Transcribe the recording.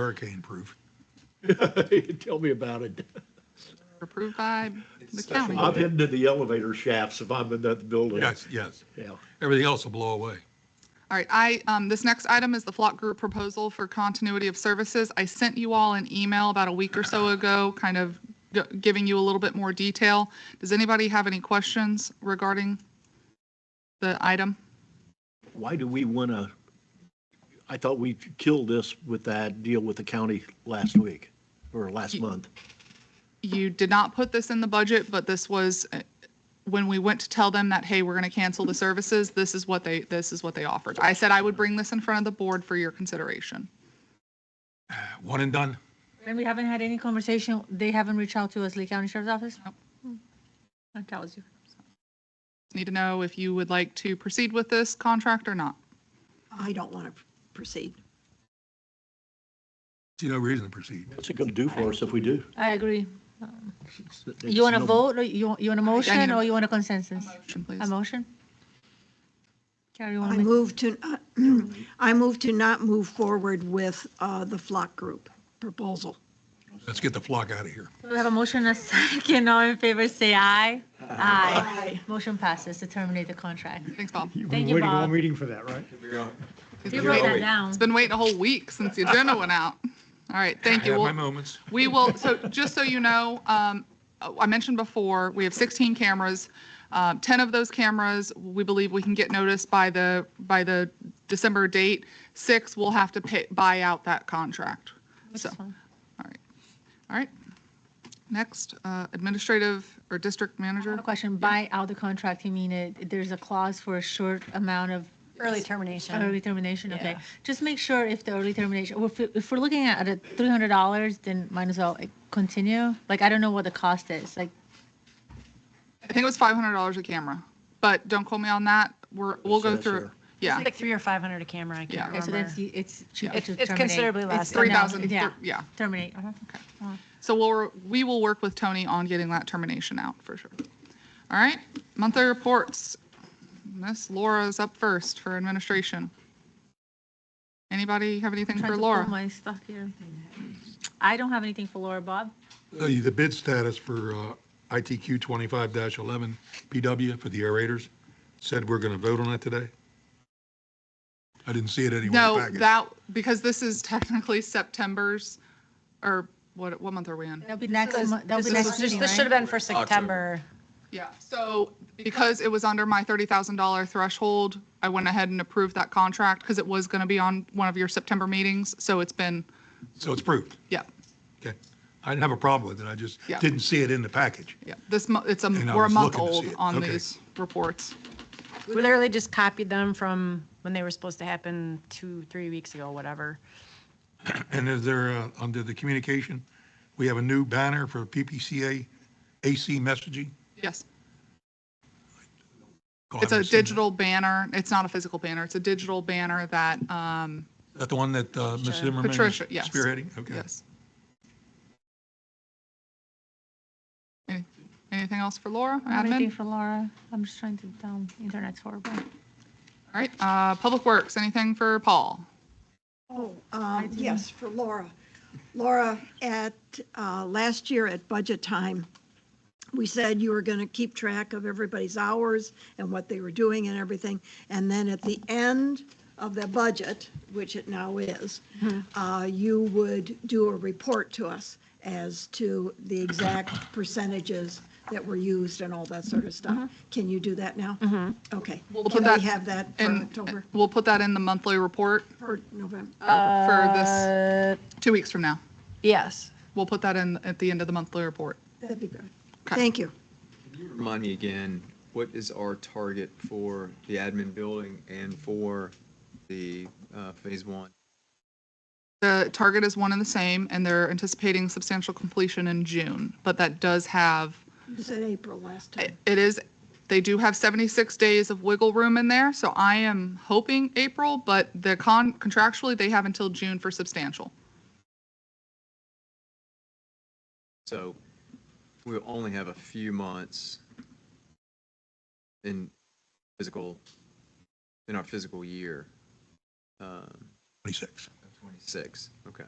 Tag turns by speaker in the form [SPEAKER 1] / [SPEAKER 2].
[SPEAKER 1] hurricane proof.
[SPEAKER 2] Tell me about it.
[SPEAKER 3] approved by the county.
[SPEAKER 2] I'm heading to the elevator shafts if I'm in that building.
[SPEAKER 1] Yes, yes.
[SPEAKER 2] Yeah.
[SPEAKER 1] Everything else will blow away.
[SPEAKER 3] All right, I, um, this next item is the flock group proposal for continuity of services. I sent you all an email about a week or so ago, kind of g- giving you a little bit more detail. Does anybody have any questions regarding the item?
[SPEAKER 2] Why do we want to? I thought we killed this with that deal with the county last week or last month.
[SPEAKER 3] You did not put this in the budget, but this was, uh, when we went to tell them that, hey, we're going to cancel the services, this is what they, this is what they offered. I said I would bring this in front of the board for your consideration.
[SPEAKER 1] Uh, One and done.
[SPEAKER 4] And we haven't had any conversation, they haven't reached out to us, Lee County Sheriff's Office?
[SPEAKER 3] Nope.
[SPEAKER 4] That tells you.
[SPEAKER 3] Need to know if you would like to proceed with this contract or not.
[SPEAKER 5] I don't want to proceed.
[SPEAKER 1] See no reason to proceed.
[SPEAKER 2] What's it going to do for us if we do?
[SPEAKER 4] I agree.
[SPEAKER 2] It's- it's
[SPEAKER 4] You want to
[SPEAKER 2] no-
[SPEAKER 4] vote, or you, want- you want a motion,
[SPEAKER 3] a-
[SPEAKER 4] or you want a consensus?
[SPEAKER 3] Motion, please.
[SPEAKER 4] A motion? Carrie, you
[SPEAKER 5] I
[SPEAKER 4] want to
[SPEAKER 5] move to, uh, I move to not move forward with uh, the flock group proposal.
[SPEAKER 1] Let's get the flock out of here.
[SPEAKER 4] make, we have a motion, and a second, all in favor, say aye. Aye. Motion passes to terminate the contract.
[SPEAKER 3] Thanks, Bob.
[SPEAKER 4] Thank you, Bob.
[SPEAKER 6] meeting for that, right?
[SPEAKER 4] You wrote that down.
[SPEAKER 3] It's been waiting a whole week since the agenda went out. All right,
[SPEAKER 1] I
[SPEAKER 3] thank you.
[SPEAKER 1] have my
[SPEAKER 3] We'll-
[SPEAKER 1] moments.
[SPEAKER 3] We will, so just so you know, um, I mentioned before, we have 16 cameras. Um, 10 of those cameras, we believe we can get noticed by the, by the December date. Six, we'll have to pay, buy out that contract. So, all
[SPEAKER 4] fine.
[SPEAKER 3] right, all right. Next, uh, administrative or district
[SPEAKER 4] I have
[SPEAKER 3] manager?
[SPEAKER 4] a Question, buy out the contract, you mean it, there's a clause for a short amount of
[SPEAKER 7] Early termination.
[SPEAKER 4] Early termination, okay.
[SPEAKER 7] Yeah.
[SPEAKER 4] Just make sure if the early termination, well, if, if we're looking at a three hundred dollars, then might as well like, continue. Like, I don't know what the cost is, like,
[SPEAKER 3] I think it was $500 a camera, but don't quote me on that. We're, we'll go
[SPEAKER 2] says
[SPEAKER 3] through,
[SPEAKER 2] here.
[SPEAKER 3] yeah.
[SPEAKER 7] It's like three or 500 a camera, I
[SPEAKER 3] Yeah.
[SPEAKER 7] can't
[SPEAKER 4] okay, so
[SPEAKER 7] remember.
[SPEAKER 4] that's, it's cheaper
[SPEAKER 7] It's
[SPEAKER 4] to
[SPEAKER 7] it's
[SPEAKER 4] terminate.
[SPEAKER 7] considerably less.
[SPEAKER 3] It's
[SPEAKER 7] than that.
[SPEAKER 3] 3,000,
[SPEAKER 4] yeah.
[SPEAKER 3] yeah.
[SPEAKER 4] Terminate, uh-huh.
[SPEAKER 3] So we'll, we will work with Tony on getting that termination out for sure. All right, monthly reports. Miss Laura's up first for administration. Anybody have anything
[SPEAKER 4] Trying
[SPEAKER 3] for
[SPEAKER 4] to pull
[SPEAKER 3] Laura?
[SPEAKER 4] My stuff here. I don't have anything for Laura, Bob.
[SPEAKER 1] Uh, The bid status for uh, ITQ 25-11 PW for the aerators said we're going to vote on it today. I didn't see it anywhere in the
[SPEAKER 3] No,
[SPEAKER 1] package.
[SPEAKER 3] that, because this is technically September's, or what, what month are we in?
[SPEAKER 4] That'll be next,
[SPEAKER 7] This-
[SPEAKER 4] mo- that'll be
[SPEAKER 7] this
[SPEAKER 4] next
[SPEAKER 7] was-
[SPEAKER 4] meeting,
[SPEAKER 7] This should have
[SPEAKER 4] right?
[SPEAKER 7] been for September.
[SPEAKER 3] Yeah, so because it was under my $30,000 threshold, I went ahead and approved that contract because it was going to be on one of your September meetings. So it's been,
[SPEAKER 1] So it's approved.
[SPEAKER 3] yeah,
[SPEAKER 1] Okay. I didn't have a problem with it. I just
[SPEAKER 3] Yeah.
[SPEAKER 1] didn't see it in the package.
[SPEAKER 3] yeah. This, mo- it's a,
[SPEAKER 1] And I
[SPEAKER 3] we're a
[SPEAKER 1] was
[SPEAKER 3] month
[SPEAKER 1] looking to see
[SPEAKER 3] old
[SPEAKER 1] it.
[SPEAKER 3] on
[SPEAKER 1] Okay.
[SPEAKER 3] these reports.
[SPEAKER 7] We literally just copied them from when they were supposed to happen two, three weeks ago, whatever.
[SPEAKER 1] And is there, uh, under the communication, we have a new banner for PPCA AC messaging?
[SPEAKER 3] Yes.
[SPEAKER 1] Oh, I
[SPEAKER 3] It's a
[SPEAKER 1] haven't seen that.
[SPEAKER 3] digital banner. It's not a physical banner. It's a digital banner that, um,
[SPEAKER 1] Is that the one that uh, Ms.
[SPEAKER 7] Patricia.
[SPEAKER 1] Zimmerman is
[SPEAKER 3] Patricia, yes.
[SPEAKER 1] spearheading? Okay.
[SPEAKER 3] yes. Any- Anything else for Laura,
[SPEAKER 4] I don't have Anything
[SPEAKER 3] admin?
[SPEAKER 4] for Laura? I'm just trying to, um, internet's horrible.
[SPEAKER 3] All right, uh, Public Works, anything for Paul?
[SPEAKER 5] Oh, um, yes, for Laura. Laura, at, uh, last year at budget time, we said you were going to keep track of everybody's hours and what they were doing and everything. And then at the end of the budget, which it now is, uh, you would do a report to us as to the exact percentages that were used and all that sort of stuff. Can you do that now? Okay.
[SPEAKER 3] put
[SPEAKER 5] Can
[SPEAKER 3] that
[SPEAKER 5] we have that for
[SPEAKER 3] And
[SPEAKER 5] October,
[SPEAKER 3] we'll put that in the monthly report
[SPEAKER 5] for November?
[SPEAKER 3] Uh, for this,
[SPEAKER 5] Uh,
[SPEAKER 3] two weeks from now.
[SPEAKER 7] Yes.
[SPEAKER 3] We'll put that in at the end of the monthly report.
[SPEAKER 5] That'd be good.
[SPEAKER 3] Okay.
[SPEAKER 5] Thank you.
[SPEAKER 8] Remind me again, what is our target for the admin building and for the uh, phase one?
[SPEAKER 3] The target is one and the same, and they're anticipating substantial completion in June, but that does have
[SPEAKER 5] You said April last
[SPEAKER 3] it
[SPEAKER 5] time.
[SPEAKER 3] it is, they do have 76 days of wiggle room in there, so I am hoping April, but the con, contractually, they have until June for substantial.
[SPEAKER 8] So we'll only have a few months in physical, in our physical year. um,
[SPEAKER 1] 26.
[SPEAKER 8] Six, okay.